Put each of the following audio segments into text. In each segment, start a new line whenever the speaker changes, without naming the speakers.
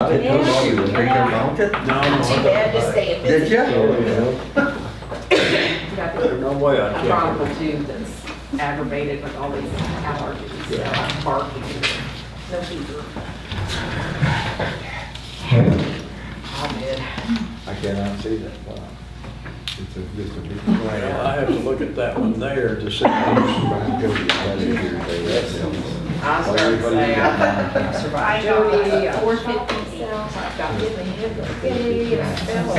I didn't know you were thinking about it.
No,
Too bad to stay in
Did
business.
you?
Oh,
There's no way I
a
can.
problem too that's aggravated with all these allergies, so I'm barking.
No fever.
All good.
I cannot see that. Wow. It's a, it's a big
Well, I
plan.
have to look at that one there to see. who's-
I was gonna say, I
I
survived
got
Jody,
like
I
uh, four
survived
fifty cells, I've got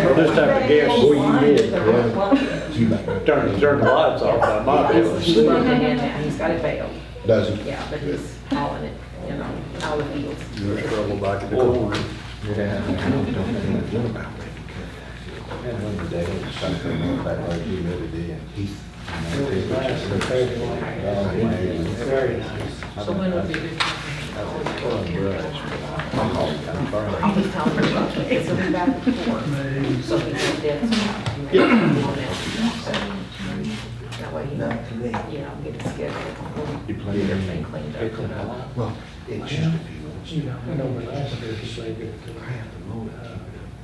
Well, this type of gas,
Boy, you did, yeah.
Turn, turn the lights off, I might be able to
He's
see.
broken in now, he's got it bailed,
Does it?
yeah, but he's hauling it, you know, out of the fields.
You're trouble back in the
Oh,
corner.
Yeah, I don't know anything about it. And one of the days, something went back like you really did.
It was nice and fair. Very nice.
So when would be good?
I'll
I'll be telling her about it, it's gonna be back and forth, so he can get some, you know, on it. So That way, he
Not to me.
you know, get it scheduled,
You
get
play
everything cleaned up, you know.
Well, it's just if you want.
You know, I know when I was there, it's like,
I have to mow it.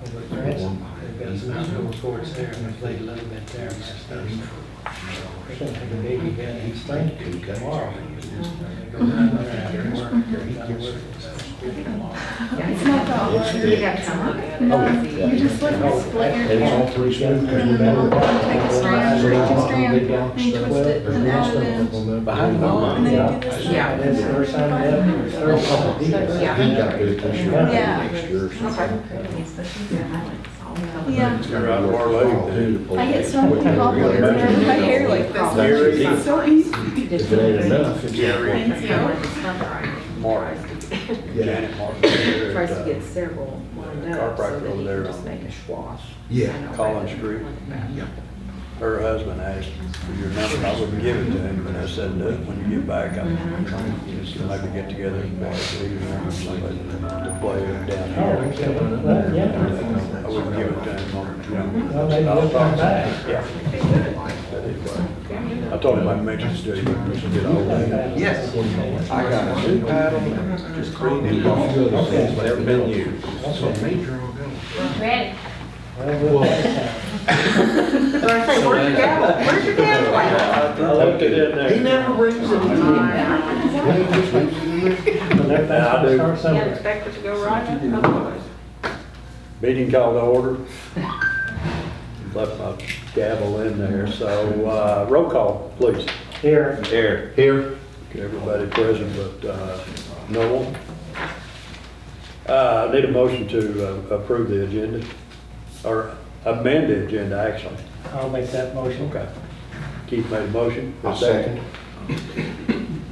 over the grass, they've got some outdoor courts there, and I played a little bit there last Thursday. They're gonna have a baby down in Spain tomorrow. They go down there after work, they're not working.
It's
not the order.
You have to look at it.
Oh, yeah.
You just look at split your
It's all
hair.
pretty smooth.
And then I'll take a strand, take a strand, and twist it and add it in.
Behind the
And
line.
then you do this.
Yeah.
And then the first time I left, it was Thursday.
Yeah.
He got it this year,
Yeah.
next year or something.
Yeah.
Yeah.
You're out of our league,
I get so many compliments when I do my hair like this. It's so easy.
If it ain't enough, it's.
Jerry.
Mark.
Janet Martin. there
Tries
at,
to
uh,
get several lined up so
Carpenter
that
over
he
there
can just
on-
make a swash.
Yeah,
you know,
Collins
rather
Street.
than back.
Her husband asked for your number, I wouldn't give it to him, but I said, uh, when you get back, I'm trying to just maybe get together and play, leave him or somebody to play down here.
Well, yeah.
I wouldn't give it to him on,
Well, maybe they'll come back.
yeah. But anyway, I told him I'd make it stay, we should get all that.
Yes, I got a new paddle, and just three new balls,
Okay.
never been used.
Ready?
Well, we'll have
So I say, where's your gavel? Where's your gavel at?
I left it in there.
He never brings it.
time. The next time we start
Can't
somewhere.
expect it to go right up, otherwise.
Meeting called to order. Left my gavel in there, so, uh, roll call, please.
Here,
Here.
Here,
Okay, Everybody present but uh, no one. Uh, I need a motion to uh, approve the agenda, or amend the agenda, actually.
I'll make that motion.
Okay. Keith made a motion.
I'll second.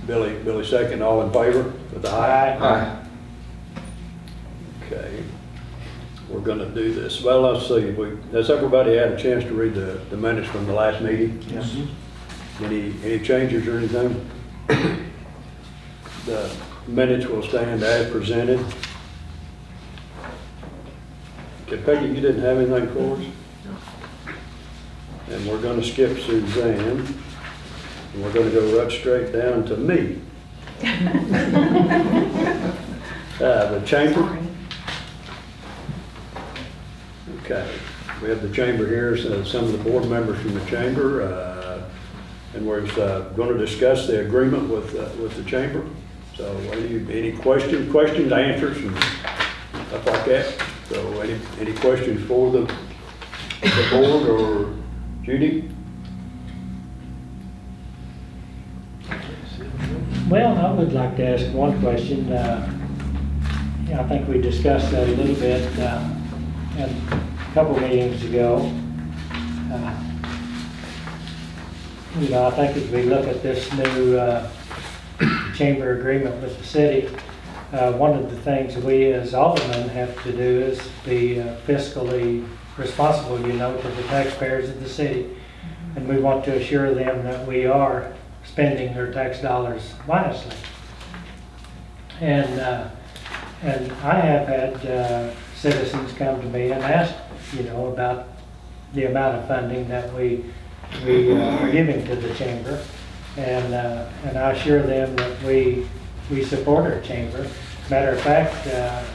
Billy, Billy second, all in favor with the aye?
Aye.
Okay. We're gonna do this. Well, let's see, we, has everybody had a chance to read the, the minutes from the last meeting? Yes. Any, any changes or anything? The minutes will stand as presented. Okay, Peggy, you didn't have anything for us? And we're gonna skip Suzanne. And we're gonna go right straight down to me. Uh, the chamber. Okay, we have the chamber here, so some of the board members from the chamber, uh, and we're going to discuss the agreement with, uh, with the chamber. So any, any question, questions, answers, and stuff like that. So any, any questions for the, the board or Judy?
Well, I would like to ask one question. Uh, yeah, I think we discussed that a little bit uh, at a couple meetings ago. Uh, You know, I think as we look at this new uh, chamber agreement with the city, uh, one of the things we as aldermen have to do is be uh, fiscally responsible, you know, to the taxpayers of the city. And we want to assure them that we are spending their tax dollars wisely. And, uh, and I have had uh, citizens come to me and ask, you know, about the amount of funding that we, we uh, are giving to the chamber. And, uh, and I assure them that we, we support our chamber. Matter of fact, uh,